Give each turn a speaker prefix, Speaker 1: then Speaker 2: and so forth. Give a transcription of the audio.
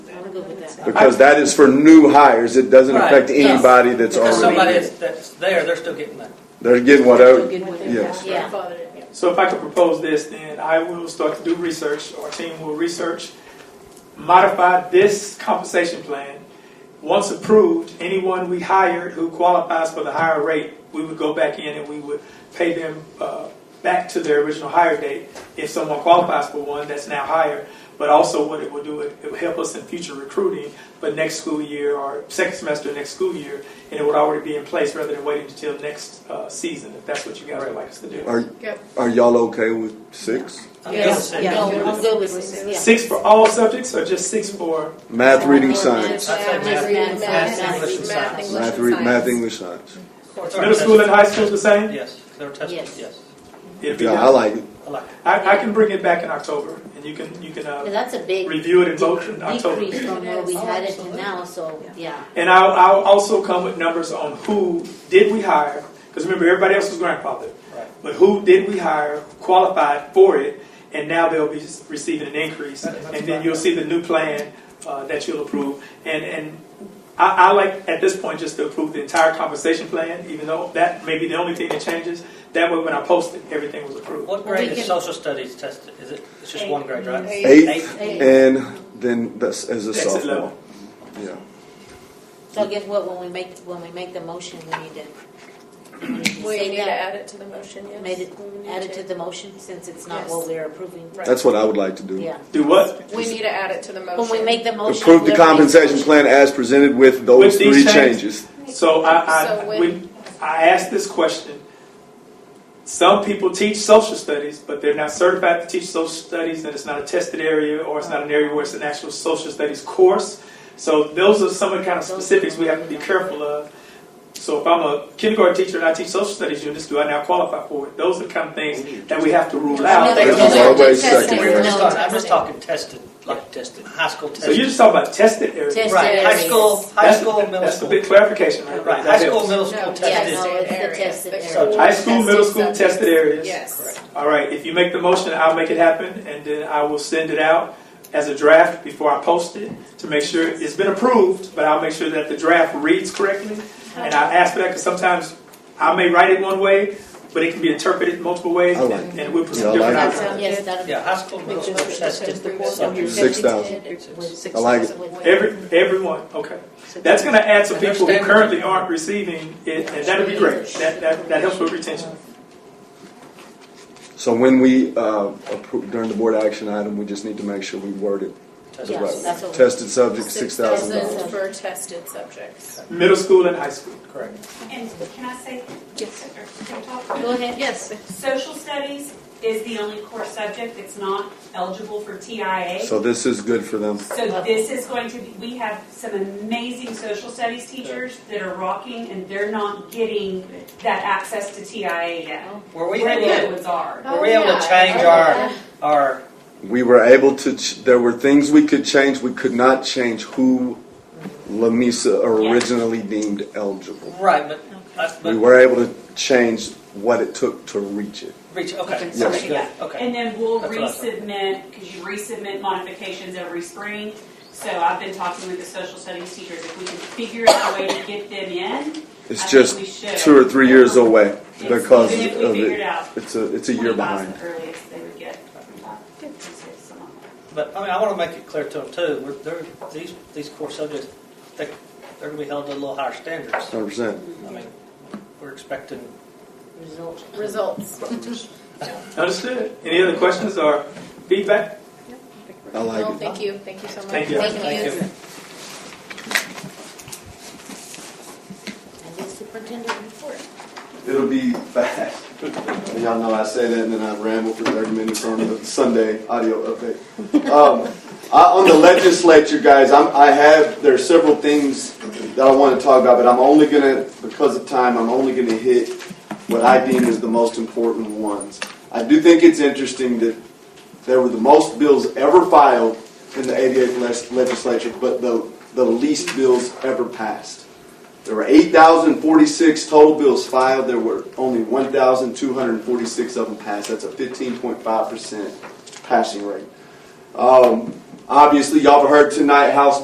Speaker 1: I'm good with that.
Speaker 2: Because that is for new hires, it doesn't
Speaker 3: Right,
Speaker 2: affect
Speaker 3: yes.
Speaker 2: anybody that's
Speaker 3: Because somebody
Speaker 2: already,
Speaker 3: that's, that's there, they're still getting money.
Speaker 2: they're getting
Speaker 1: Still
Speaker 2: whatever,
Speaker 1: good with it.
Speaker 2: yes.
Speaker 1: Yeah.
Speaker 4: So if I could propose this, then I will start to do research, our team will research, modify this compensation plan. Once approved, anyone we hired who qualifies for the higher rate, we would go back in and we would pay them uh, back to their original hire date if someone qualifies for one that's now higher. But also what it will do, it it will help us in future recruiting for next school year or second semester next school year, and it would already be in place rather than waiting until next uh, season, if that's what you guys would like us to do.
Speaker 2: Are, are y'all okay with six?
Speaker 3: I'm good with
Speaker 1: Yes,
Speaker 3: that.
Speaker 1: no, I'm good with it, yeah.
Speaker 4: Six for all subjects or just six for?
Speaker 2: Math, reading, science,
Speaker 3: I'd say
Speaker 1: Math, math,
Speaker 3: math, math,
Speaker 1: math,
Speaker 3: English, and
Speaker 1: math,
Speaker 3: science.
Speaker 2: math, re- math, English, science.
Speaker 4: Middle school and high school the same?
Speaker 3: Yes, they're tested,
Speaker 1: Yes.
Speaker 3: yes.
Speaker 4: It'd be
Speaker 2: Yeah, I
Speaker 4: done.
Speaker 2: like it.
Speaker 3: I like it.
Speaker 4: I, I can bring it back in October and you can, you can,
Speaker 1: But
Speaker 4: uh,
Speaker 1: that's a big
Speaker 4: review it in vote in October.
Speaker 1: decrease from where we
Speaker 5: Oh,
Speaker 1: had it to
Speaker 5: absolutely.
Speaker 1: now, so, yeah.
Speaker 4: And I'll, I'll also come with numbers on who did we hire, because remember, everybody else was grandfathered.
Speaker 3: Right.
Speaker 4: But who did we hire, qualified for it, and now they'll be receiving an increase.
Speaker 3: That- that's
Speaker 4: And then
Speaker 3: fine.
Speaker 4: you'll see the new plan uh, that you'll approve. And, and I, I like, at this point, just to approve the entire compensation plan, even though that may be the only thing that changes. That way, when I post it, everything was approved.
Speaker 3: What
Speaker 1: We
Speaker 3: grade is
Speaker 1: can-
Speaker 3: social studies tested? Is it, it's just
Speaker 5: Eight.
Speaker 3: one grade, right?
Speaker 5: Eight.
Speaker 2: Eight,
Speaker 1: Eight.
Speaker 2: and then that's as a
Speaker 4: Exit
Speaker 2: sophomore.
Speaker 4: level.
Speaker 2: Yeah.
Speaker 1: So I guess what, when we make, when we make the motion, we need to. we need to
Speaker 5: We
Speaker 1: say
Speaker 5: need to
Speaker 1: that.
Speaker 5: add it to the motion, yes.
Speaker 1: Made it,
Speaker 5: We need
Speaker 1: add it to the motion, since it's not
Speaker 5: Yes.
Speaker 1: what we're approving.
Speaker 5: Right.
Speaker 2: That's what I would like to do.
Speaker 1: Yeah.
Speaker 4: Do what?
Speaker 5: We need to add it to the
Speaker 1: When
Speaker 5: motion.
Speaker 1: we make the motion.
Speaker 2: Approve the
Speaker 1: whoever makes
Speaker 2: compensation
Speaker 1: motion-
Speaker 2: plan as presented with those
Speaker 4: With
Speaker 2: three
Speaker 4: these
Speaker 2: changes.
Speaker 4: So I, I,
Speaker 5: So when-
Speaker 4: when I asked this question, some people teach social studies, but they're not certified to teach social studies, and it's not a tested area, or it's not an area where it's an actual social studies course. So those are some of the kind of specifics we have to be careful of. So if I'm a kindergarten teacher and I teach social studies units, do I now qualify for it? Those are the kind of things that we have to rule out.
Speaker 2: This is always second.
Speaker 3: We were just
Speaker 1: No,
Speaker 3: talking, I'm just
Speaker 5: tested.
Speaker 3: talking tested, like tested, high school
Speaker 4: So you're
Speaker 3: tested.
Speaker 4: just talking about tested areas.
Speaker 1: Tested
Speaker 3: Right, high
Speaker 1: areas.
Speaker 3: school, high
Speaker 4: That's-
Speaker 3: school, middle
Speaker 4: That's the
Speaker 3: school.
Speaker 4: big clarification, right?
Speaker 3: Right,
Speaker 4: That
Speaker 3: high school,
Speaker 4: helps.
Speaker 3: middle
Speaker 5: No,
Speaker 3: school
Speaker 1: yeah,
Speaker 3: tested.
Speaker 1: no, it's the
Speaker 5: areas,
Speaker 1: tested
Speaker 5: the
Speaker 1: area.
Speaker 3: So
Speaker 5: core
Speaker 4: High school, middle school,
Speaker 5: subjects.
Speaker 4: tested areas.
Speaker 5: Yes.
Speaker 4: All right, if you make the motion, I'll make it happen, and then I will send it out as a draft before I post it to make sure it's been approved, but I'll make sure that the draft reads correctly. And I ask for that because sometimes I may write it one way, but it can be interpreted multiple ways,
Speaker 2: I like
Speaker 4: and and we'll put
Speaker 2: Yeah, I
Speaker 4: some different
Speaker 2: like
Speaker 1: That
Speaker 4: outcomes.
Speaker 1: sounds, yes, that'll.
Speaker 3: Yeah, high school, middle school tested. subjects.
Speaker 2: Six thousand. I like it.
Speaker 4: Every, everyone, okay. That's going to add some people who
Speaker 3: Understand.
Speaker 4: currently aren't receiving it, and that'll be great. That, that, that helps with retention.
Speaker 2: So when we, uh, appro- during the board action item, we just need to make sure we word it the
Speaker 3: tested.
Speaker 1: Yeah,
Speaker 2: right.
Speaker 1: that's what
Speaker 2: way.
Speaker 1: we-
Speaker 2: Tested subject, six thousand dollars.
Speaker 5: 6,000 For tested subjects.
Speaker 4: Middle school and high school.
Speaker 3: Correct.
Speaker 6: And can I say?
Speaker 5: Yes.
Speaker 6: or can I talk?
Speaker 1: Go ahead.
Speaker 5: Yes.
Speaker 6: Social studies is the only core subject that's not eligible for TIA.
Speaker 2: So this is good for them.
Speaker 6: So this is going to, be we have some amazing social studies teachers that are rocking and they're not getting that access to TIA yet.
Speaker 3: Were we
Speaker 6: Where the other
Speaker 3: able,
Speaker 6: ones are.
Speaker 3: were we able to
Speaker 1: Oh,
Speaker 3: change our, our,
Speaker 2: We were able to, ch- there were things we could change, we could not change who Lamisa originally deemed eligible.
Speaker 3: right, but, that's-
Speaker 2: We
Speaker 3: but,
Speaker 2: were able to change what it took to reach it.
Speaker 3: reach, okay.
Speaker 1: Yes.
Speaker 3: that's
Speaker 6: Yeah.
Speaker 3: good, Okay.
Speaker 6: And then we'll
Speaker 3: That's what I thought.
Speaker 6: resubmit, because you resubmit modifications every spring. So I've been talking with the social studies teachers, if we can figure out a way to get them in. I
Speaker 2: It's
Speaker 6: think
Speaker 2: just
Speaker 6: we should.
Speaker 2: two or three years away
Speaker 6: Yes,
Speaker 2: because
Speaker 6: even if we
Speaker 2: of
Speaker 6: figured
Speaker 2: it.
Speaker 6: out
Speaker 2: It's a, it's a year
Speaker 6: 20,000
Speaker 2: behind.
Speaker 6: Earliest they would get.
Speaker 3: But, I mean, I want to make it clear to them too, we're, they're, these, these core subjects, they, they're going to be held to a little higher standards.
Speaker 2: Hundred percent.
Speaker 3: I mean, we're expecting
Speaker 1: Results.
Speaker 5: Results.
Speaker 4: Understood? Any other questions or feedback?
Speaker 2: I like
Speaker 5: No,
Speaker 2: it.
Speaker 5: thank you, thank you so much.
Speaker 4: Thank you.
Speaker 3: Thank you.
Speaker 1: And the superintendent report.
Speaker 2: It'll be fast. And y'all know I say that and then I ramble for 30 minutes on the Sunday audio update. Um, I, on the legislature, guys, I'm, I have, there are several things that I want to talk about, but I'm only going to, because of time, I'm only going to hit what I deem as the most important ones. I do think it's interesting that there were the most bills ever filed in the 88th les- legislature, but the, the least bills ever passed. There were 8,046 total bills filed. There were only 1,246 of them passed. That's a 15.5% passing rate. Um, obviously, y'all have heard tonight House